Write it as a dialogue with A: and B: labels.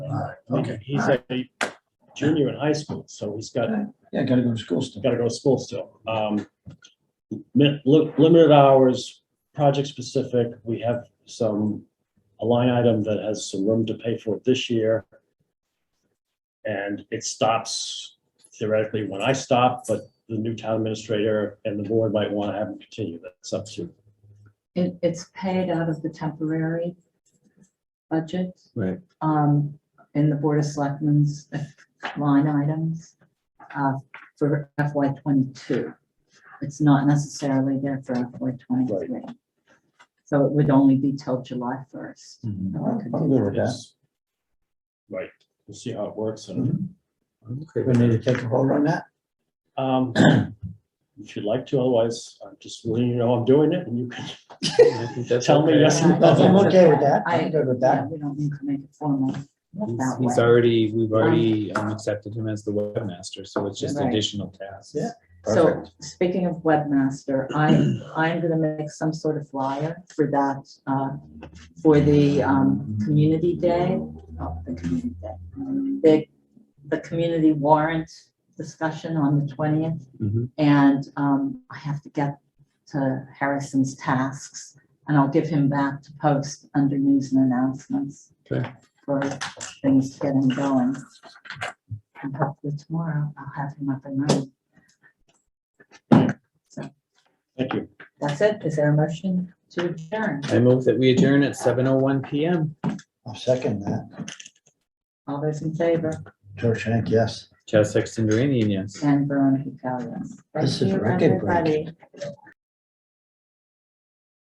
A: Okay.
B: He's a junior in high school, so he's got,
A: Yeah, gotta go to school still.
B: gotta go to school still. Um, min- li- limited hours, project specific, we have some, a line item that has some room to pay for it this year. And it stops theoretically when I stop, but the new town administrator and the board might want to have him continue. That's up to
C: It, it's paid out of the temporary budget.
D: Right.
C: Um, in the Board of Selectmen's line items, uh, for FY twenty-two. It's not necessarily there for FY twenty-three. So it would only be till July first.
D: Mhm.
A: I'm good with that.
B: Yes. Right, we'll see how it works and,
A: Okay, Mm-hmm. we need to take a vote on that?
B: um, if you'd like to, otherwise, I'm just letting you know I'm doing it and you can.
D: I think that's
B: Tell me
D: okay.
B: yes.
A: I'm okay with that.
C: I-
A: I'm good with
C: Yeah,
A: that.
C: we don't need to make it formal that
D: He's-
C: way.
D: He's already, we've already um, accepted him as the webmaster, so it's just
C: Right.
D: additional tasks.
A: Yeah.
C: So
D: Perfect.
C: speaking of webmaster, I'm, I'm gonna make some sort of flyer for that, uh, for the, um, community day. oh, the community day, The, the community warrant discussion on the twentieth.
D: Mhm.
C: And, um, I have to get to Harrison's tasks and I'll give him back to post under news and announcements.
D: Okay.
C: For things getting going. And hopefully tomorrow I'll have him up and running.
B: Thank you.
C: That's it. Is there a motion to adjourn?
D: I move that we adjourn at seven oh one PM.
A: I'll second that.
C: All those in favor?
A: George Shank, yes.
D: Chaz Sexton Duranian, yes.
C: And Veronica Cal, yes. Thank
A: This is
C: you,
A: record break.
C: everybody.